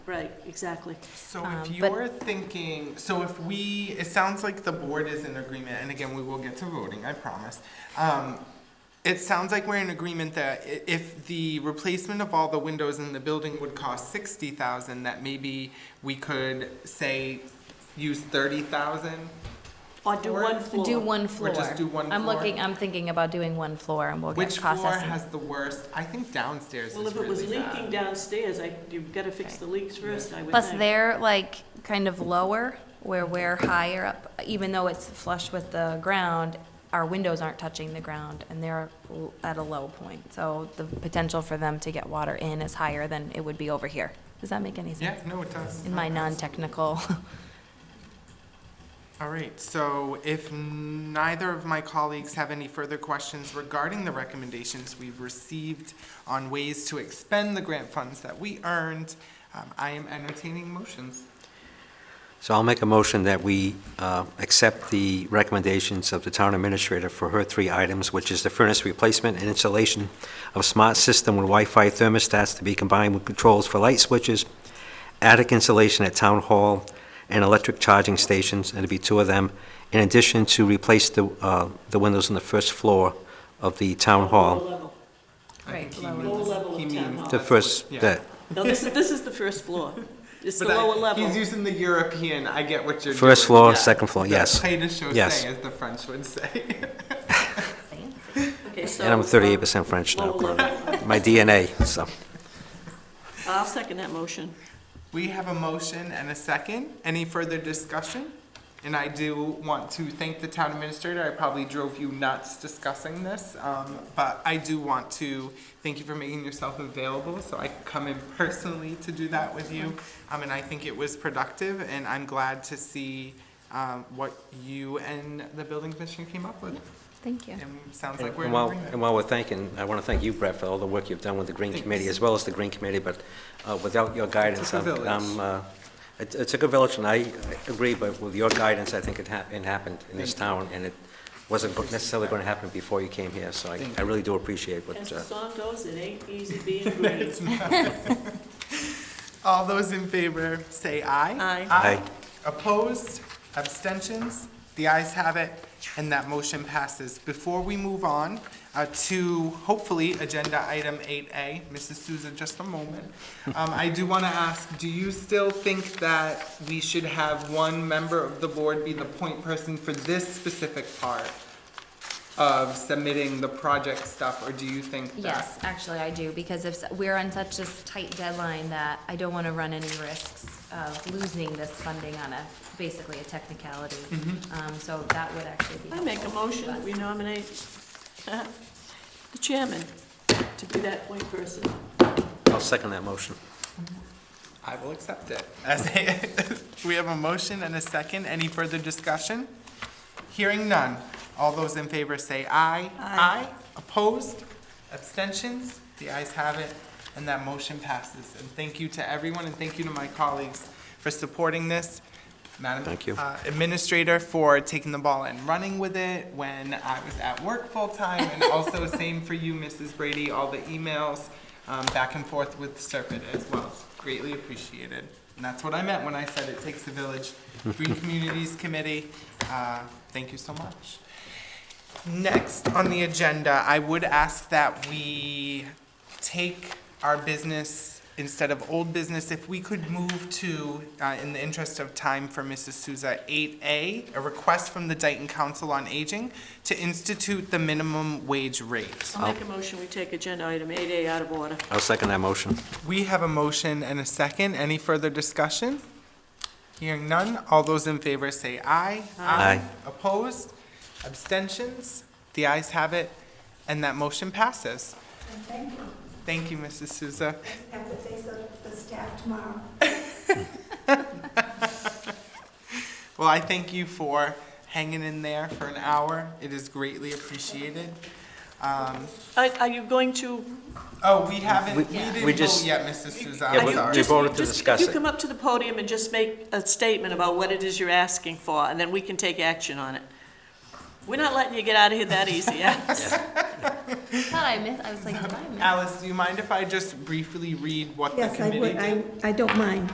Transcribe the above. Right, exactly. So Um, if but- you're thinking, so if we, it sounds like the board is in agreement, and again, we will get to voting, I promise. Um, It sounds like we're in agreement that i- if the replacement of all the windows in the building would cost sixty thousand, that maybe we could say use thirty thousand? Or do one floor. Do one floor. Or just do one I'm floor? looking, I'm thinking about doing one floor and we'll get Which floor cost has estimate. the worst? I think downstairs is Well, if it was really bad. leaking downstairs, I, you've got to fix the leaks first, I would Plus think. they're like kind of lower where we're higher up, even though it's flush with the ground, our windows aren't touching the ground and they're l- at a low point. So the potential for them to get water in is higher than it would be over here. Does that make any Yeah, sense? no, it does. In my non-technical, All right, so if neither of my colleagues have any further questions regarding the recommendations we've received on ways to expend the grant funds that we earned, um, I am entertaining motions. So I'll make a motion that we uh, accept the recommendations of the town administrator for her three items, which is the furnace replacement and installation of smart system with Wi-Fi thermostats to be combined with controls for light switches, attic insulation at town hall, and electric charging stations, and to be two of them, in addition to replace the, uh, the windows on the first floor of the town Lower hall. level. I think he Right, lower means- level. Lower level he of town means hall. The first, Yeah. that, No, this is, this is the first floor. It's the But I- lower level. He's using the European, I get what you're doing. First floor, yeah. second floor, The yes. Play to show Yes. say, as the French would say. Okay, so, and I'm thirty-eight percent um, French now, lower level. my DNA, so. I'll second that motion. We have a motion and a second. Any further discussion? And I do want to thank the town administrator. I probably drove you nuts discussing this. um, But I do want to thank you for making yourself available so I could come in personally to do that with you. Um, And I think it was productive and I'm glad to see um, what you and the building commissioner came up with. thank you. And sounds like we're in And while, and agreement. while we're thanking, I want to thank you, Brett, for all the work you've done with the Green Committee, as well as the Green Committee, but uh, without your guidance, took a I'm- village. I'm, uh, it it took a village, and I I agree, but with your guidance, I think it hap- it happened in this town, and it wasn't go- necessarily going to happen before you came here, so I Thank I really do appreciate what, As uh, the song goes, it ain't easy being green. All those in favor, say aye. Aye. Aye. Opposed? Abstentions? The ayes have it, and that motion passes. Before we move on uh, to, hopefully, Agenda Item 8A, Mrs. Souza, just a moment. Um, I do want to ask, do you still think that we should have one member of the board be the point person for this specific part of submitting the project stuff, or do you think that? Yes, actually, I do, because if, s- we're on such a s- tight deadline that I don't want to run any risks of losing this funding on a, basically a technicality. Um, so that would actually be. I make a helpful motion to that us. we nominate uh, the chairman to be that point person. I'll second that motion. I will accept it. As a- We have a motion and a second. Any further discussion? Hearing none. All those in favor say aye. Aye. Opposed? Abstentions? The ayes have it, and that motion passes. And thank you to everyone, and thank you to my colleagues for supporting this. Madam Thank you. uh, Administrator for taking the ball and running with it when I was at work full-time, and also same for you, Mrs. Brady, all the emails um, back and forth with Serpent as well. Greatly appreciated. And that's what I meant when I said it takes a village. Green Communities Committee, uh, thank you so much. Next on the agenda, I would ask that we take our business, instead of old business, if we could move to, uh, in the interest of time for Mrs. Souza, eight A, a request from the Dayton Council on Aging to institute the minimum wage rate. I'll make a motion, we take agenda item 8A out of order. I'll second that motion. We have a motion and a second. Any further discussion? Hearing none, all those in favor say aye. Aye. Opposed? Abstentions? The ayes have it, and that motion passes. Thank you. Thank you, Mrs. Souza. I have to say so to the staff tomorrow. Well, I thank you for hanging in there for an hour. It is greatly appreciated. Um, Are are you going to Oh, we haven't, we We- we didn't vote just- yet, Mrs. Souza. Yeah, I I'm we- think sorry. we just- voted to just- discuss If you it. come up to the podium and just make a statement about what it is you're asking for, and then we can take action on it. We're not letting you get out of here that easy, yeah? I thought I missed, I was like, did I miss? Alice, do you mind if I just briefly read what the Yes, I committee would, did? I, I don't mind.